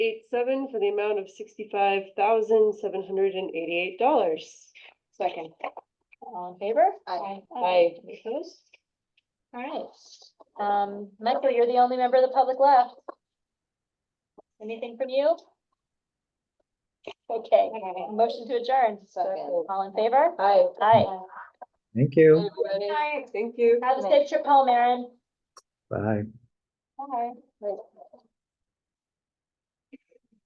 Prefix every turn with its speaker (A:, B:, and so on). A: eight seven for the amount of sixty-five thousand, seven hundred and eighty-eight dollars.
B: Second. All in favor?
C: Aye.
A: Aye.
B: Any Opposed? All right, um, Michael, you're the only member of the public left. Anything from you? Okay, motion to adjourn.
C: Second.
B: All in favor?
A: Aye.
B: Aye.
D: Thank you.
A: Mm. Thank you.
B: Have a safe trip home, Erin.
D: Bye.
B: Bye.